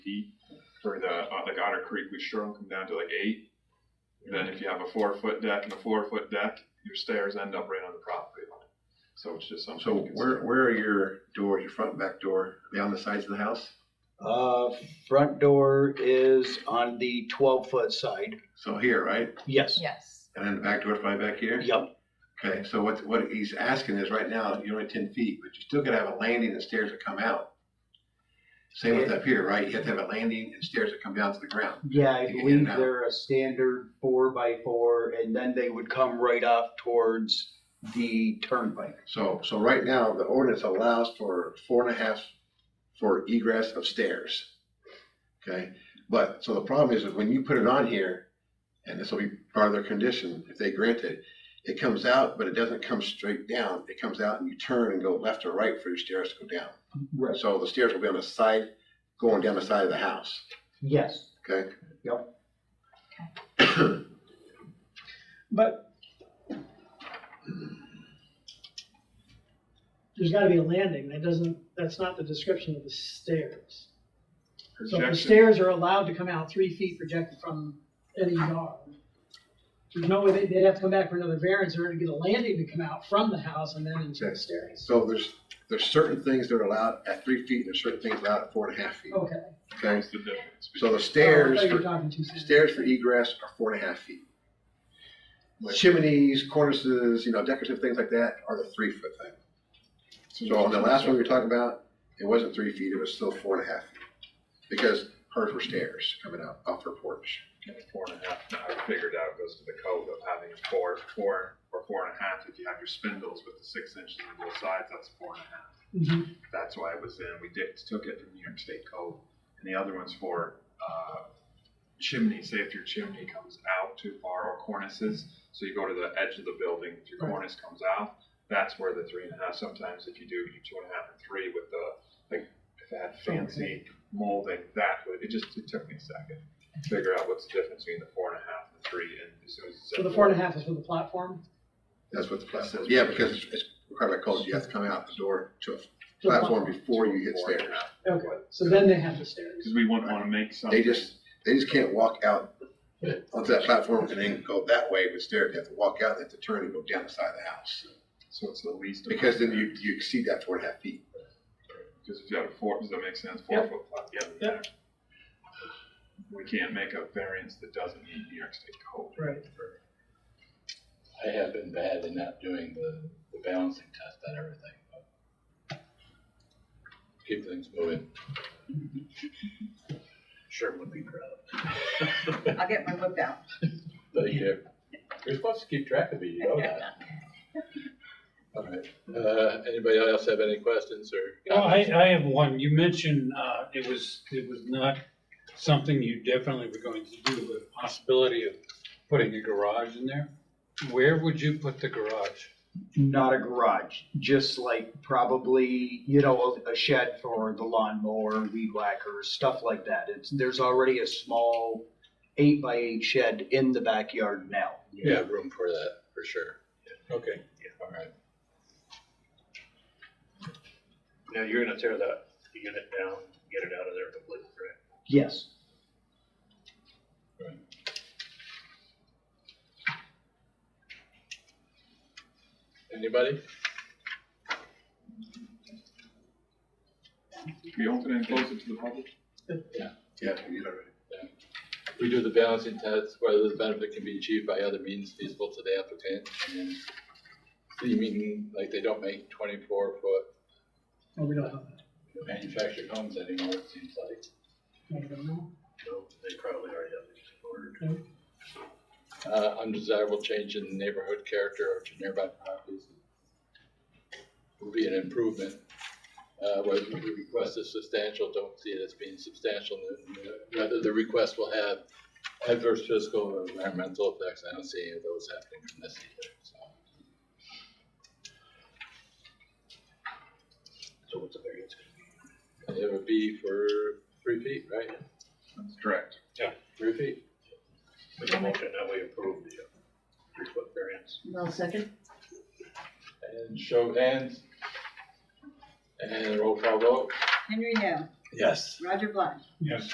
like Otter uh, Creek, we shrunk them down to like eight. Then if you have a four foot deck and a four foot deck, your stairs end up right on the property line. So it's just something. So to consider. where, where are your doors, your front and back door? Are they on the sides of the house? Uh, front door is on the twelve foot side. So here, right? Yes. Yes. And then the back door's probably back here? Yep. Okay, so what, what he's asking is right now, you're only ten feet, but you still gotta have a landing and stairs that come out. Same with up here, right? You have to have a landing and stairs that come down to the ground. Yeah, I You can believe now. they're a standard four by four and then they would come right off towards the turnpike. So, so right now, the ordinance allows for four and a half for egress of stairs. Okay, but, so the problem is, is when you put it on here, and this will be part of their condition, if they grant it, it comes out, but it doesn't come straight down. It comes out and you turn and go left or right for your stairs to go down. Right. So the stairs will be on the side, going down the side of the house, Yes. okay? Yep. But there's gotta be a landing. That doesn't, that's not the description of the stairs. So if the Projection, stairs are allowed to come out three feet projected from any yard. There's no way, they- they'd have to come back for another variance in order to get a landing to come out from the house and then into the stairs. So there's, there's certain things that are allowed at three feet, and there's certain things allowed at four and a half feet, Okay. okay? that's the difference. So the Oh, I stairs, thought you were for- talking two separate- stairs for e- egress are four and a half feet. Chimneys, cornices, you know, decorative things like that are the three foot thing. So on the last one we were talking about, it wasn't three feet, it was still four and a half feet. Because hers were stairs coming out off her porch. Four and a half, now I figured out goes to the code of having four, four, or four and a half. If you have your spindles with the six inches on both sides, that's four and a half. Mhm. That's why it was in, we did, took it from New York State Code. And the other one's for, uh, chimney, say if your chimney comes out too far or cornices. So you go to the edge of the building, if your Right. cornice comes out, that's where the three and a half, sometimes if you do, you do two and a half or three with the, like, if it had fancy molding, that would, it just, it took me a second. to Figure out what's the difference between the four and a half and the three and as soon as. you said So the four and a half is for the platform? That's what the plan says. Yeah, because it's- it's required by code, you have to come out the door to a To the platform before you hit Four and a stairs. half. Okay, so then they have the stairs. Cause we wouldn't wanna make something. They just, they just can't walk out onto that platform and then go that way with stairs. They have to walk out, they have to turn and go down the side of the house. So it's the least. amount Because then of- you, you exceed that four and a half feet. Because if you had a four, does that make sense? Four Yep. foot plot, yeah. Yep. We can't make a variance that doesn't meet New York State code. Right. I have been bad in not doing the, the balancing test on everything, but keep things moving. Sure would be proud. I'll get my whip out. But you, you're supposed to keep track of it, you know that. All right, uh, anybody else have any questions or? No, Oh, I, comments? I have one. You mentioned, uh, it was, it was not something you definitely were going to do, but a possibility of putting a garage in there. Where would you put the garage? Not a garage, just like probably, you know, a shed for the lawnmower, weed whacker, stuff like that. It's, there's already a small eight by eight shed in the backyard now. You have room for that, for sure. Okay. All right. Now, you're gonna tear that unit down, get it out of there completely, correct? Yes. Anybody? Can you open and close it to the public? Yeah, you know, We do the balancing test, whether the benefit can be achieved by other means feasible to the applicant, and then city meeting, like, they don't make twenty-four foot Oh, we don't have manufactured homes anymore, it seems like. that. I don't know. No, they probably already have these ordered. Uh, undesirable change in neighborhood character or to nearby properties will be an improvement. Uh, whether the request is substantial, don't see it as being substantial, whether the request will have adverse physical or environmental effects, I don't see any of those happening from this either, so. So what's the variance gonna be? It would be for three feet, right? That's correct. Three feet. Make a motion that we approve the uh, three foot variance. No second? And show of hands. And roll call vote. Henry No, Yes. Roger Black. Yes.